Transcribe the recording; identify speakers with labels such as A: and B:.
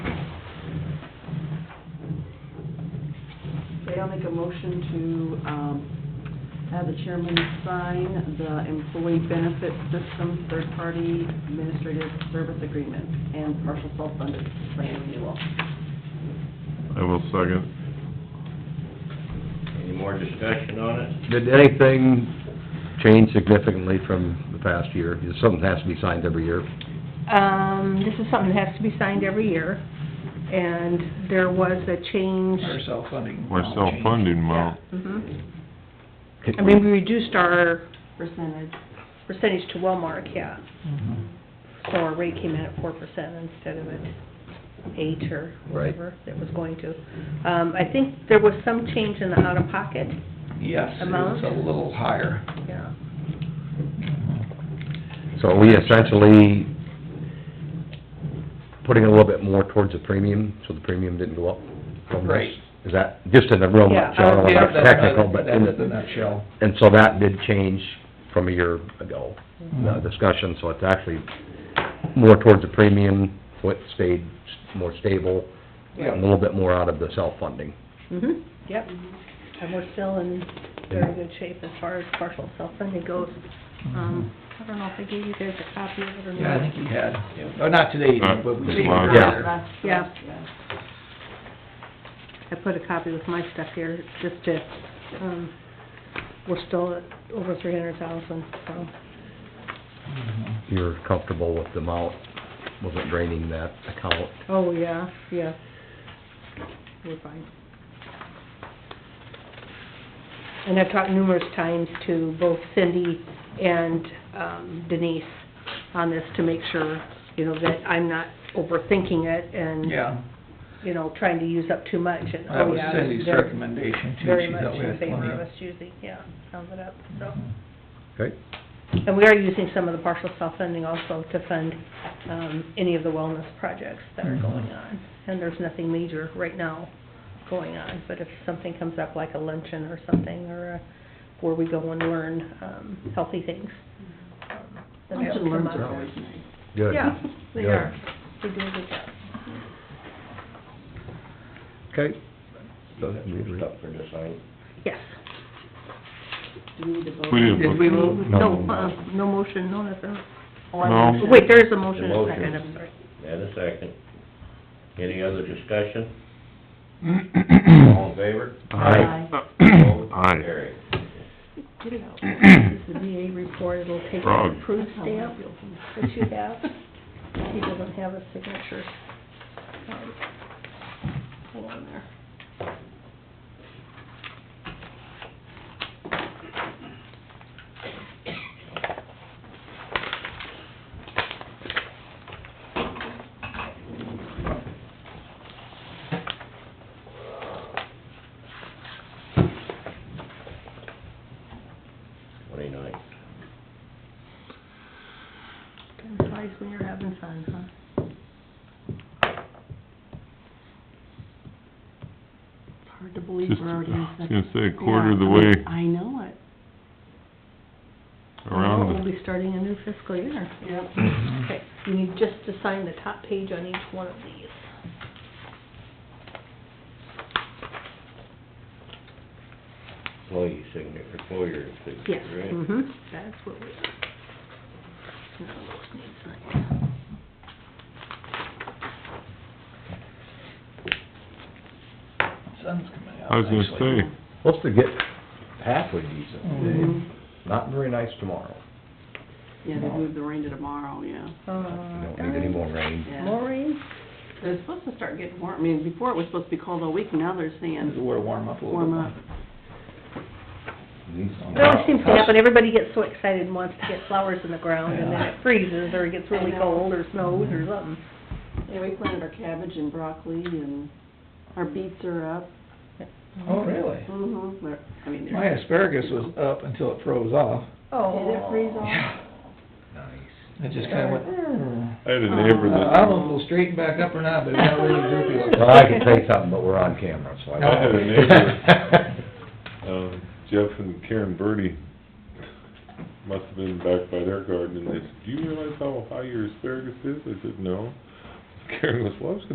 A: I'll make a motion to um, have the chairman sign the employee benefit system third-party administrative service agreement and partial self-funded plan renewal.
B: I will second.
C: Any more discussion on it?
D: Did anything change significantly from the past year? Something has to be signed every year.
E: Um, this is something that has to be signed every year, and there was a change.
F: Our self-funding.
B: My self-funding amount,
E: Mhm. I mean, we reduced our
A: Percentage.
E: percentage to Wellmark, yeah,
F: Mhm.
E: so our rate came in at four percent instead of at eight or
D: Right.
E: whatever it was going to. Um, I think there was some change in the out-of-pocket,
F: Yes, it was
E: Amount?
F: a little higher.
E: yeah.
D: So we essentially putting a little bit more towards the premium, so the premium didn't go up from this?
F: Right.
D: Is that, just in the real
E: Yeah,
D: nutshell, I don't
F: Yeah,
D: wanna
F: that's
D: get technical,
F: the-
D: but,
F: That's the
D: and,
F: nutshell.
D: and so that did change from a year ago,
E: Mm-hmm.
D: the discussion, so it's actually more towards the premium, so it stayed s- more stable, and a
F: Yeah.
D: little bit more out of the self-funding.
E: Mhm, yep. And we're still in very good shape as far as partial self-funding goes. Um, I don't know if I gave you guys a copy of it or not.
F: Yeah, I think you had, oh, not today,
B: Uh,
F: but we
B: this
F: gave it
B: last-
D: Yeah.
F: earlier.
A: Last-
E: Yeah.
A: yeah.
E: I put a copy with my stuff here, just to, um, we're still at over three hundred thousand, so.
F: Mhm.
D: You're comfortable with the amount, wasn't draining that account?
E: Oh, yeah, yeah. We're fine. And I've talked numerous times to both Cindy and um, Denise on this to make sure, you know, that I'm not overthinking it and,
F: Yeah,
E: you know, trying to use up too much and,
F: that
E: oh,
F: was
E: yeah.
F: Cindy's
E: they're
F: recommendation too.
E: Very
F: She
E: much
F: thought we
E: in
F: had
E: favor
F: plenty
E: of
F: of- Mm-hmm.
E: us using, yeah, sums it up, so.
D: Okay.
E: And we are using some of the partial self-funding also to fund, um, any of the wellness projects that are going on. And there's nothing major right now going on, but if something comes up like a luncheon or something, or a- where we go and learn, um, healthy things. um, then
A: Lunch and
E: that'll come
A: learns are
E: up.
A: always nice.
D: Good.
E: Yeah, they
D: Good.
E: are. They do a good job.
D: Okay.
C: You got some stuff for this, I,
E: Yes.
A: Do we need to vote?
B: we didn't
F: Did we
B: look,
F: move?
E: No, uh, no motion, no nothing.
A: Oh, I
B: No.
A: motioned.
E: Wait, there is a motion
C: The
E: and a
C: motion.
E: second, I'm sorry.
C: and a second. Any other discussion? All in favor?
D: Aye.
C: Opposed?
B: aye.
C: Carried.
E: Get it out. It's the VA report, it'll take
B: Frog.
E: an approved stamp that you have. He doesn't have a signature. Um, Hang on there.
C: Twenty-nine.
E: Time flies when you're having fun, huh?
A: It's hard to believe
B: Just,
A: we're already in
B: I was
A: second.
B: gonna say, quarter of the
A: Yeah,
B: way
A: I know it.
B: around
E: We'll
B: the, Mm.
E: be starting a new fiscal year.
A: Yep.
E: Okay, you need just to sign the top page on each one of these.
C: Employee signature, employer
E: Yes,
C: signature, right?
E: mhm, that's what we are. None of those need signed.
F: Sun's coming out.
B: I was gonna
F: nicely.
B: say,
D: Supposed to get halfway decent today,
F: Mm-hmm.
A: Mhm.
D: not very nice tomorrow.
A: Yeah, they moved the rain to tomorrow, yeah.
D: We don't need any
E: uh,
D: more rain.
A: Yeah.
E: Maureen?
A: They're supposed to start getting warm, I mean, before it was supposed to be cold all week, now they're
F: It's a
A: saying
F: little warm up a little bit.
A: warm up.
E: It always seems to happen, everybody gets so excited and wants to get flowers in the ground, and then it freezes, or it gets really
A: I know.
E: cold, or snows, or something.
A: Yeah, we planted our cabbage and broccoli and our beets are up.
F: Oh, really?
A: Mm-hmm, they're, I mean, they're.
F: My asparagus was up until it froze off.
A: Did
E: Oh.
A: it freeze off?
F: It just kinda went, "Mm."
B: I had a neighbor
F: Uh,
B: that,
F: I don't know if it'll straighten back up or not, but it got really droopy looking.
D: Well, I can say something, but we're on camera, so I.
B: I had a neighbor. um, Jeff and Karen Birdie must have been back by their garden, and they said, do you realize how high your asparagus is? I said, no. Karen goes, well, I was